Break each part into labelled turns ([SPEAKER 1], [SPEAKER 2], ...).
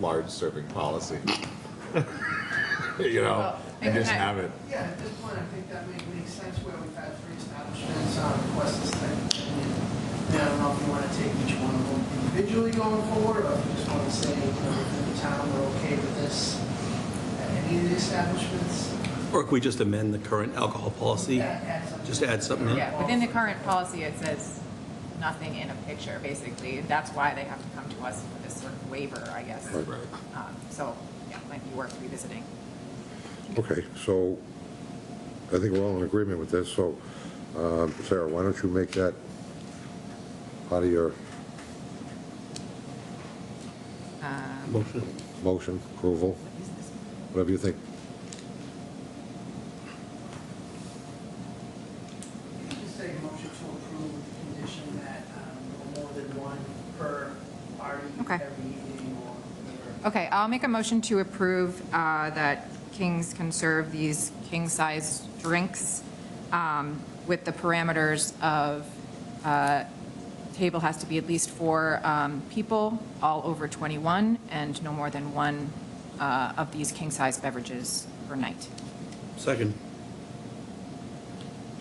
[SPEAKER 1] large serving policy. You know, and just have it.
[SPEAKER 2] Yeah, at this point, I think that may make sense where we've had three establishments uh, request this type of thing. And I don't know if you want to take each one of them individually going forward, or if you just want to say, you know, within the town, we're okay with this at any of the establishments.
[SPEAKER 3] Or could we just amend the current alcohol policy?
[SPEAKER 2] Add- add something.
[SPEAKER 3] Just add something in?
[SPEAKER 4] Yeah, within the current policy, it says nothing in a picture, basically. That's why they have to come to us for this sort of waiver, I guess.
[SPEAKER 1] Right, right.
[SPEAKER 4] Um, So, yeah, might be worth revisiting.
[SPEAKER 5] Okay, so I think we're all in agreement with this, so um, Sarah, why don't you make that part of your
[SPEAKER 4] Um,
[SPEAKER 3] Motion.
[SPEAKER 5] motion, approval,
[SPEAKER 4] what is this?
[SPEAKER 5] whatever you think.
[SPEAKER 2] You could say motion to approve with the condition that um, no more than one per party
[SPEAKER 4] Okay.
[SPEAKER 2] every evening or whatever.
[SPEAKER 4] Okay, I'll make a motion to approve uh, that Kings conserve these king-size drinks um, with the parameters of uh, table has to be at least four um, people, all over 21, and no more than one uh, of these king-size beverages per night.
[SPEAKER 3] Second.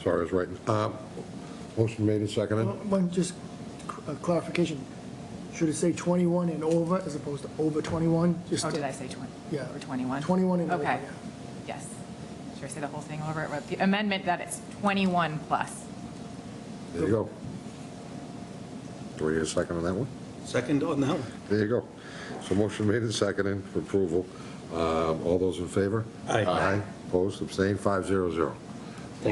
[SPEAKER 5] Sorry, I was writing. Uh, Motion made and seconded.
[SPEAKER 6] One, just a clarification, should it say 21 and over as opposed to over 21? Just-
[SPEAKER 4] Oh, did I say 20?
[SPEAKER 6] Yeah.
[SPEAKER 4] Or 21?
[SPEAKER 6] 21 and over,
[SPEAKER 4] Okay,
[SPEAKER 6] yeah.
[SPEAKER 4] yes. Should I say the whole thing over? With The amendment that it's 21 plus.
[SPEAKER 5] There you go. Do we need a second on that one?
[SPEAKER 3] Second on that one?
[SPEAKER 5] There you go. So motion made and seconded for approval. Um, All those in favor?
[SPEAKER 3] Aye.
[SPEAKER 5] Aye, opposed, abstained, 500. All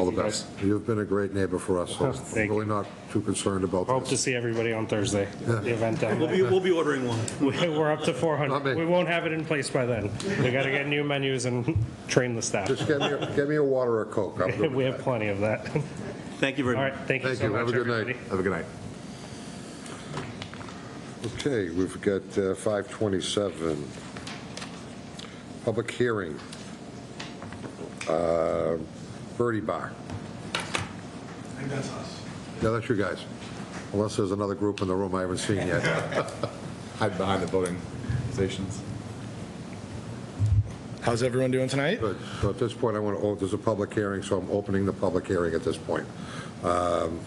[SPEAKER 7] Thank
[SPEAKER 5] the
[SPEAKER 7] you, guys.
[SPEAKER 5] best. You've been a great neighbor for us, so I'm
[SPEAKER 7] Thank
[SPEAKER 5] really not too concerned about
[SPEAKER 7] Hope to
[SPEAKER 5] this.
[SPEAKER 7] see everybody on Thursday, the event down
[SPEAKER 3] We'll
[SPEAKER 7] there.
[SPEAKER 3] be, we'll be ordering one.
[SPEAKER 7] We're up to
[SPEAKER 5] Not me.
[SPEAKER 7] 400. We won't have it in place by then. We got to get new menus and train the staff.
[SPEAKER 5] Just get me, a- get me a water or a Coke. I'm good
[SPEAKER 7] We
[SPEAKER 5] with
[SPEAKER 7] have
[SPEAKER 5] that.
[SPEAKER 7] plenty of that.
[SPEAKER 3] Thank you very
[SPEAKER 7] All
[SPEAKER 3] much.
[SPEAKER 7] right, thank you
[SPEAKER 5] Thank
[SPEAKER 7] so
[SPEAKER 5] you,
[SPEAKER 7] much,
[SPEAKER 5] have a good
[SPEAKER 7] everybody.
[SPEAKER 5] night. Have a good night. Okay, we've got uh, 527. Public hearing. Uh, Birdie Bar.
[SPEAKER 8] I think that's us.
[SPEAKER 5] Yeah, that's you guys. Unless there's another group in the room I haven't seen yet.
[SPEAKER 1] Hide behind the voting stations.
[SPEAKER 8] How's everyone doing tonight?
[SPEAKER 5] Good. So at this point, I want to, there's a public hearing, so I'm opening the public hearing at this point. Um,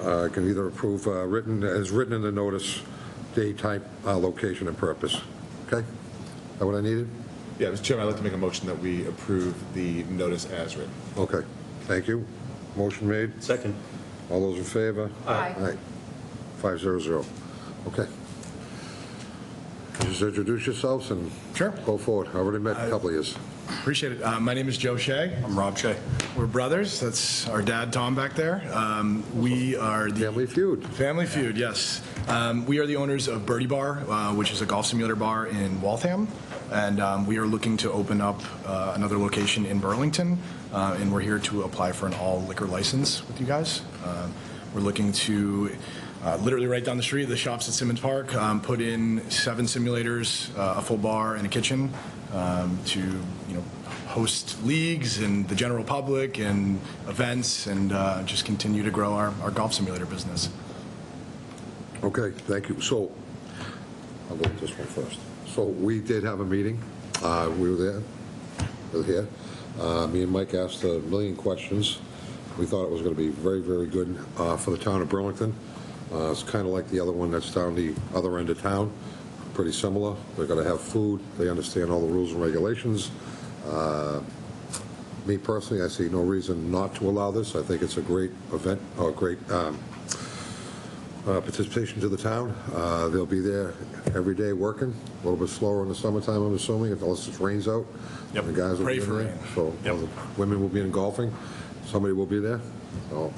[SPEAKER 5] uh, Can either approve uh, written, as written in the notice, day, type, uh, location, and purpose. Okay? That what I needed?
[SPEAKER 1] Yeah, Mr. Chairman, I'd like to make a motion that we approve the notice as written.
[SPEAKER 5] Okay, thank you. Motion made.
[SPEAKER 3] Second.
[SPEAKER 5] All those in favor?
[SPEAKER 4] Aye.
[SPEAKER 5] Five zero zero. Okay. Just introduce yourselves and
[SPEAKER 8] Sure.
[SPEAKER 5] go forward. I already met a couple of yous.
[SPEAKER 8] Appreciate it. Uh, My name is Joe Shea. I'm Rob Shea. We're brothers. That's our dad, Tom, back there. Um, We are the...
[SPEAKER 5] Family feud.
[SPEAKER 8] Family Feud, yes. Um, we are the owners of Birdie Bar, uh, which is a golf simulator bar in Waltham, and um, we are looking to open up uh, another location in Burlington, uh, and we're here to apply for an all liquor license with you guys. Um, we're looking to uh, literally right down the street, the shops at Simmons Park, um, put in seven simulators, uh, a full bar, and a kitchen um, to you know host leagues and the general public and events, and uh, just continue to grow our, our golf simulator business.
[SPEAKER 5] Okay, thank you. So, I'll go with this one first. So we did have a meeting. Uh, We were there, we were here. Uh, Me and Mike asked a million questions. We thought it was going to be very, very good uh, for the town of Burlington. Uh, It's kind of like the other one that's down the other end of town, pretty similar. They're going to have food, they understand all the rules and regulations. Uh, Me personally, I see no reason not to allow this. I think it's a great event, or a great um, uh, participation to the town. Uh, They'll be there every day working, a little bit slower in the summertime, I'm assuming, unless it rains out.
[SPEAKER 8] Yep.
[SPEAKER 5] The guys will
[SPEAKER 8] Pray
[SPEAKER 5] be in
[SPEAKER 8] for
[SPEAKER 5] there,
[SPEAKER 8] rain.
[SPEAKER 5] so
[SPEAKER 8] Yep.
[SPEAKER 5] uh, women will be in golfing, somebody will be there. So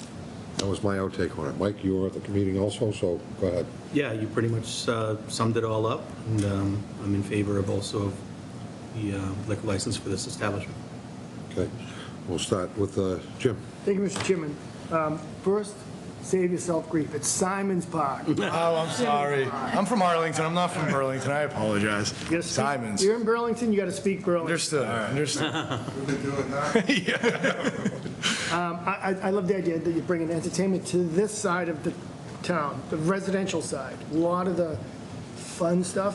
[SPEAKER 5] that was my outtake on it. Mike, you were at the meeting also, so go ahead.
[SPEAKER 3] Yeah, you pretty much uh, summed it all up, and um, I'm in favor of also of the uh, liquor license for this establishment.
[SPEAKER 5] Okay, we'll start with uh, Jim.
[SPEAKER 6] Thank you, Mr. Chairman. Um, First, save yourself grief, it's Simon's Park.
[SPEAKER 8] Oh, I'm sorry. I'm from Arlington. I'm not from Burlington. I apologize.
[SPEAKER 6] Yes,
[SPEAKER 8] Simons.
[SPEAKER 6] You're in Burlington, you got to speak Burlington.
[SPEAKER 8] Understood. Understood.
[SPEAKER 6] I, I- I love the idea that you bring an entertainment to this side of the town, the residential side. A lot of the fun stuff